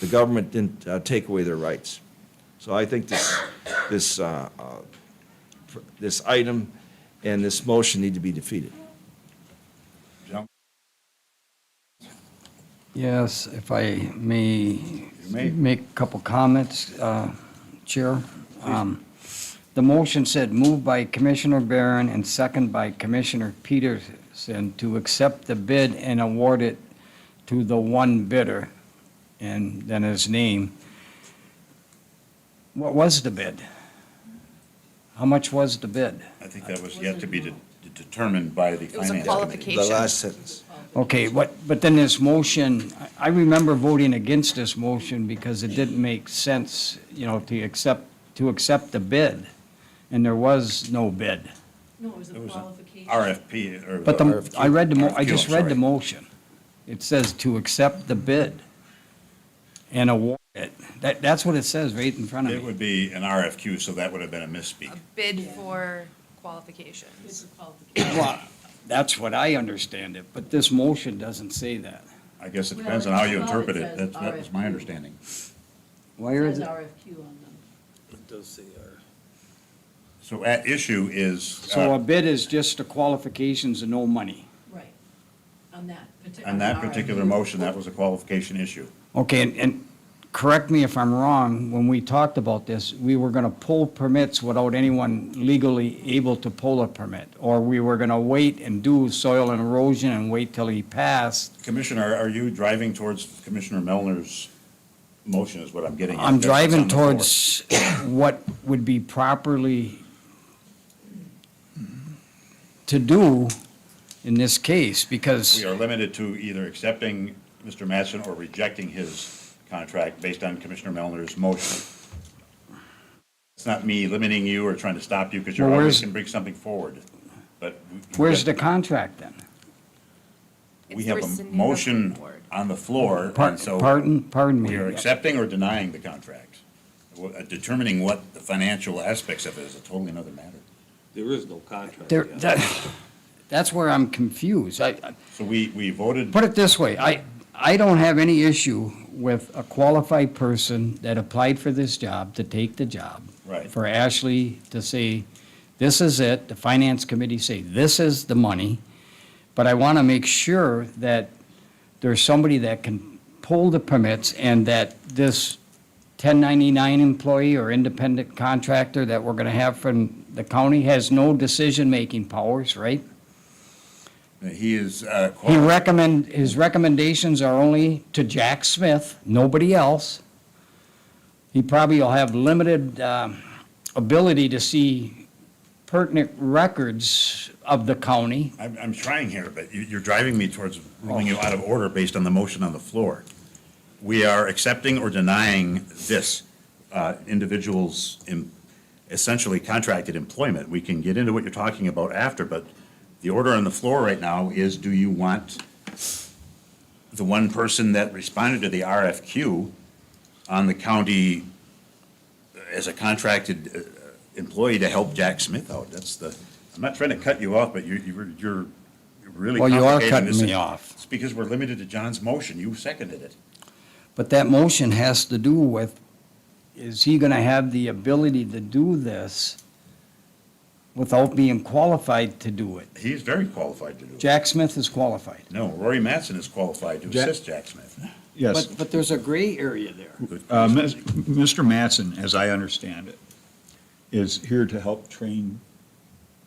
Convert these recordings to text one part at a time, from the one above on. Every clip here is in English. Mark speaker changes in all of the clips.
Speaker 1: The government didn't uh, take away their rights. So I think this, this, uh, uh, pr- this item and this motion need to be defeated.
Speaker 2: Yes, if I may
Speaker 3: may.
Speaker 2: make a couple comments, uh, Chair. Um, The motion said moved by Commissioner Barron and second by Commissioner Peterson to accept the bid and award it to the one bidder, and then his name. What was the bid? How much was the bid?
Speaker 3: I think that was yet to be de- determined by the
Speaker 4: It was
Speaker 3: finance
Speaker 4: a
Speaker 3: committee.
Speaker 4: qualification.
Speaker 1: The last sentence.
Speaker 2: Okay, what, but then this motion, I- I remember voting against this motion because it didn't make sense, you know, to accept, to accept the bid, and there was no bid.
Speaker 5: No, it was a
Speaker 3: It was an
Speaker 5: qualification.
Speaker 3: RFP or.
Speaker 2: But the,
Speaker 3: RFQ.
Speaker 2: I read the, mo- I
Speaker 3: RFQ,
Speaker 2: just
Speaker 3: I'm
Speaker 2: read the
Speaker 3: sorry.
Speaker 2: motion. It says to accept the bid and award it. That, that's what it says right in front
Speaker 3: It
Speaker 2: of me.
Speaker 3: would be an RFQ, so that would have been a misspeak.
Speaker 4: A bid for qualifications.
Speaker 5: It's a qualification.
Speaker 2: Well, That's what I understand it, but this motion doesn't say that.
Speaker 3: I guess it
Speaker 5: Well,
Speaker 3: depends on
Speaker 5: it's
Speaker 3: how you
Speaker 5: above
Speaker 3: interpret
Speaker 5: it
Speaker 3: it.
Speaker 5: says
Speaker 3: That's, that was my
Speaker 5: RFQ.
Speaker 3: understanding.
Speaker 2: Where
Speaker 5: It
Speaker 2: is
Speaker 5: says
Speaker 2: it?
Speaker 5: RFQ on them.
Speaker 3: So at issue is,
Speaker 2: So a
Speaker 3: uh,
Speaker 2: bid is just the qualifications and no money.
Speaker 5: Right, on that particular.
Speaker 3: on that particular motion, that was a qualification issue.
Speaker 2: Okay, and, and correct me if I'm wrong, when we talked about this, we were gonna pull permits without anyone legally able to pull a permit. Or we were gonna wait and do soil and erosion and wait till he passed.
Speaker 3: Commissioner, are you driving towards Commissioner Melner's motion is what I'm getting at.
Speaker 2: I'm
Speaker 3: That's what's on
Speaker 2: driving
Speaker 3: the floor.
Speaker 2: towards what would be properly to do in this case, because.
Speaker 3: We are limited to either accepting Mr. Matson or rejecting his contract based on Commissioner Melner's motion. It's not me limiting you or trying to stop you because you
Speaker 2: Well,
Speaker 3: always
Speaker 2: where's-
Speaker 3: can bring something forward, but. we-
Speaker 2: Where's the contract then?
Speaker 3: We
Speaker 4: It's
Speaker 3: have a
Speaker 4: rescinding the
Speaker 3: motion
Speaker 4: award.
Speaker 3: on the floor,
Speaker 2: Par-
Speaker 3: and so.
Speaker 2: Pardon, pardon me.
Speaker 3: We are accepting or denying the contract. Wha- uh, Determining what the financial aspects of it is a totally another matter.
Speaker 6: There is no contract
Speaker 2: There,
Speaker 6: yet.
Speaker 2: that, that's where I'm confused. I, I-
Speaker 3: So we, we voted,
Speaker 2: Put it this way, I, I don't have any issue with a qualified person that applied for this job to take the job.
Speaker 3: Right.
Speaker 2: For Ashley to say, this is it, the finance committee say, this is the money. But I want to make sure that there's somebody that can pull the permits and that this 1099 employee or independent contractor that we're going to have from the county has no decision-making powers, right?
Speaker 3: that he is, uh,
Speaker 2: He
Speaker 3: qualified.
Speaker 2: recommend, his recommendations are only to Jack Smith, nobody else. He probably will have limited um, ability to see pertinent records of the county.
Speaker 3: I'm, I'm trying here, but you, you're driving me towards ruling you out of order based on the motion on the floor. We are accepting or denying this uh, individual's em- essentially contracted employment. We can get into what you're talking about after, but the order on the floor right now is, do you want the one person that responded to the RFQ on the county uh, as a contracted uh, employee to help Jack Smith out. That's the, I'm not trying to cut you off, but you, you were- you're really
Speaker 2: Well, you are
Speaker 3: complicating
Speaker 2: cutting
Speaker 3: this.
Speaker 2: me off.
Speaker 3: It's because we're limited to John's motion. You seconded it.
Speaker 2: But that motion has to do with, is he going to have the ability to do this without being qualified to do it?
Speaker 3: He's very qualified to do it.
Speaker 2: Jack Smith is qualified.
Speaker 3: No, Rory Matson is qualified to
Speaker 7: Jack-
Speaker 3: assist Jack Smith.
Speaker 7: Yes.
Speaker 2: But, but there's a gray area there.
Speaker 7: Uh, Ms- Mr. Matson, as I understand it, is here to help train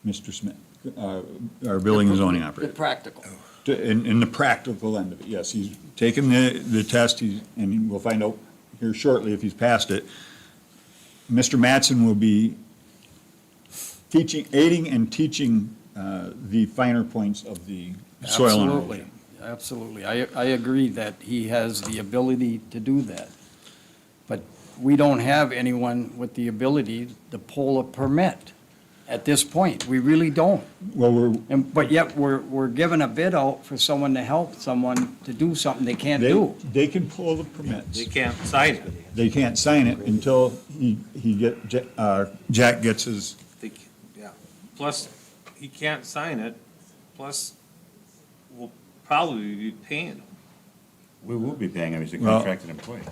Speaker 7: Mr. Smith, uh, our building and zoning
Speaker 2: The
Speaker 7: operator.
Speaker 2: practical.
Speaker 7: To- In, in the practical end of it, yes, he's taken the, the test, he's, and we'll find out here shortly if he's passed it. Mr. Matson will be teaching, aiding and teaching uh, the finer points of the soil and
Speaker 2: Absolutely,
Speaker 7: erosion.
Speaker 2: absolutely. I, I agree that he has the ability to do that. But we don't have anyone with the ability to pull a permit at this point. We really don't.
Speaker 7: Well, we're,
Speaker 2: And, but yet, we're, we're giving a bid out for someone to help someone to do something they can't
Speaker 7: they,
Speaker 2: do.
Speaker 7: they can pull the permits.
Speaker 6: They can't sign it.
Speaker 7: they can't sign it until he, he get, Ja- uh, Jack gets his,
Speaker 6: They c- yeah. Plus, he can't sign it, plus we'll probably be paying him.
Speaker 3: We will be paying him. He's a
Speaker 7: Well-
Speaker 3: contracted employee.